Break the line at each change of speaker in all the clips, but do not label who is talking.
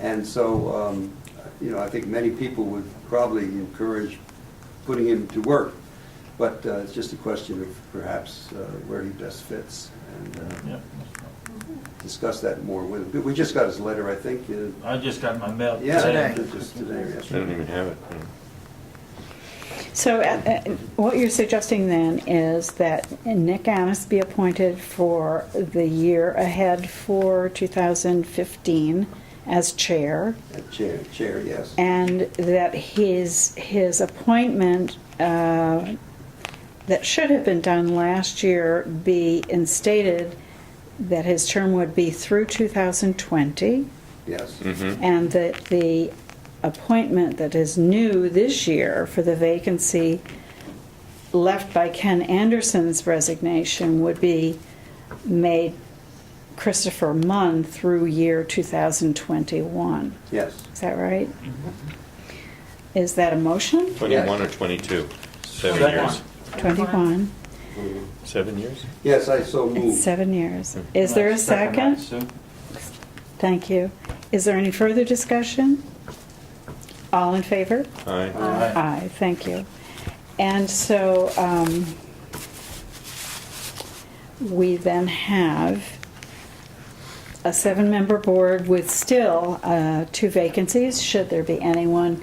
And so, um, you know, I think many people would probably encourage putting him to work, but uh, it's just a question of perhaps uh, where he best fits, and uh,
Yeah.
discuss that more with him. We just got his letter, I think. uh,
I just got my mail
Yeah,
today.
Just today, or
I don't even
yesterday.
have it.
So uh, uh, what you're suggesting then is that Nick Annis be appointed for the year ahead for 2015 as chair,
Uh, Chair, chair, yes.
and that his, his appointment uh, that should have been done last year be instated that his term would be through 2020,
Yes.
Mm-hmm.
and that the appointment that is new this year for the vacancy left by Ken Anderson's resignation would be made Christopher Munn through year 2021.
Yes.
Is that right? Is that a motion?
Twenty-one or twenty-two? Seven
Twenty-one.
years.
21.
Seven years?
Yes, I so
It's
move.
seven years. Is there a
Second,
second?
Sue.
Thank you. Is there any further discussion? All in favor?
Aye.
Uh,
Aye.
Aye, thank you. And so um, we then have a seven-member board with still uh, two vacancies, should there be anyone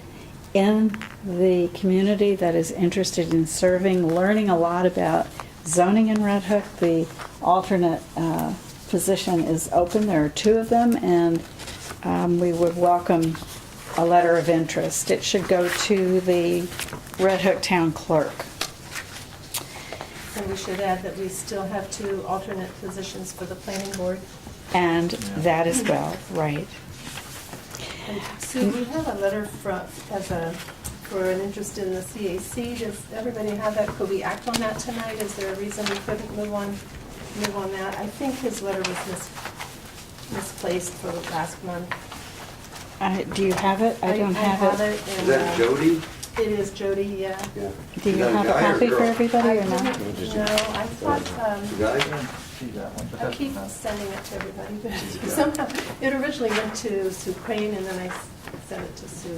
in the community that is interested in serving, learning a lot about zoning in Red Hook. The alternate uh, position is open, there are two of them, and um, we would welcome a letter of interest. It should go to the Red Hook Town Clerk.
And we should add that we still have two alternate positions for the planning board.
And that as well, right.
And Sue,
Mm-hmm.
we have a letter from, as a, for an interest in the CAC. Does everybody have that? Could we act on that tonight? Is there a reason we couldn't move on, move on that? I think his letter was mis- misplaced for last month.
Uh, Do you have it? I don't have it.
Is
and,
that
uh,
Jody?
It is Jody, yeah.
Yeah.
Do
Is
you
that
have a
guy or
copy for
girl?
everybody or not?
I didn't- No, I thought, um,
The guy?
See that one, but
I
that's
keep
not-
sending it to everybody, but somehow, it originally went to Sue Crane, and then I s- sent it to Sue.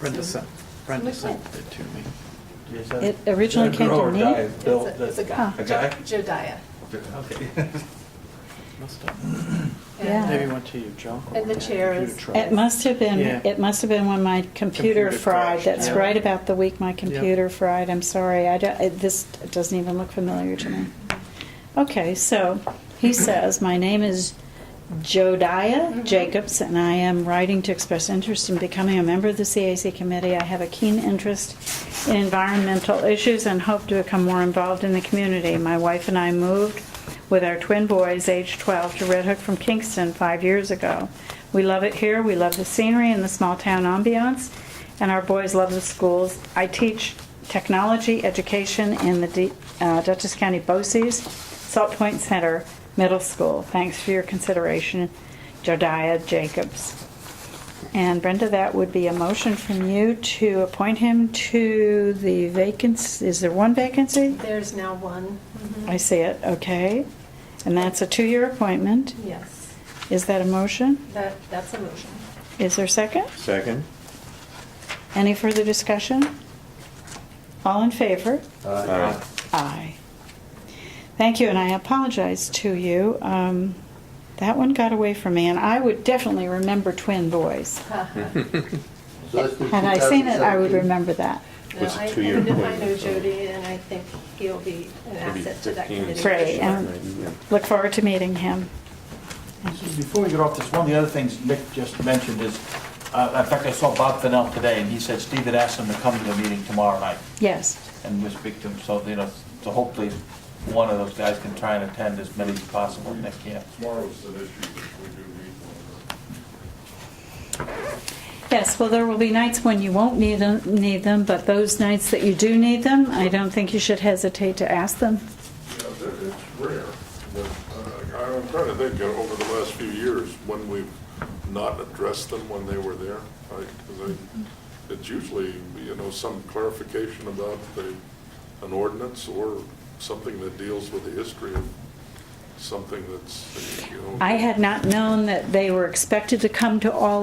Brenda sent, Brenda
Which one?
sent it to me.
Is that-
It originally
is that a
came
girl
to
or
me.
guy?
It's
Bill,
a- It's a
that-
guy.
A guy?
Jo- Jodiah.
Okay.
Must have.
Yeah.
Maybe
uh,
went to your junk. or
And the
my
chair
computer
is-
trouble.
It must have been,
Yeah.
it must have been when my computer
Computer
fried.
crashed,
That's
yeah.
right about the week my computer fried. I'm sorry. I don't, it- this doesn't even look familiar to me. Okay, so he says, "My name is Jodiah
Mm-hmm.
Mhm.
Jacobs, and I am writing to express interest in becoming a member of the CAC committee. I have a keen interest in environmental issues and hope to become more involved in the community. My wife and I moved with our twin boys, age 12, to Red Hook from Kingston five years ago. We love it here. We love the scenery and the small town ambiance, and our boys love the schools. I teach technology education in the D- uh, Dutchess County BOCES, Salt Point Center Middle School. Thanks for your consideration, Jodiah Jacobs. And Brenda, that would be a motion from you to appoint him to the vacancy. Is there one vacancy?
There's now one. Mhm.
Mm-hmm. I see it, okay. And that's a two-year appointment.
Yes,
Is that a motion?
that, that's a motion.
Is there a second?
Second?
Any further discussion? All in favor?
Uh,
Aye. Thank you, and I apologize to you. Um, That one got away from me, and I would definitely remember twin boys.
uh-huh.
Hmm.
so that's from
Had I seen it, I would
2017.
remember that.
No,
Was it
I-
two-year
I know- I
appointment,
know
so-
Jody, and I think he'll be an
Maybe
asset to that
15.
committee.
Right, and-
Yeah.
Look forward to meeting him.
Just Before we get off this, one of the other things Nick just mentioned is, uh, in fact, I saw Bob Fennell today, and he said Steve had asked him to come to the meeting tomorrow night,
Yes,
and we'll speak to him, so, you know, so hopefully, one of those guys can try and attend as many as possible, Nick can.
Tomorrow's the issue, which we do meet
yes, well, there will be nights when you won't need them, need them, but those nights that you do need them, I don't think you should hesitate to ask them.
on. Yeah, that- it's rare, but uh, I'm trying to think, uh, over the last few years, when we've not addressed them when they were there, like, 'cause I- it's usually, you know, some clarification about the, an ordinance or something that deals with the history of something that's, you know.
I had not known that they were expected to come to all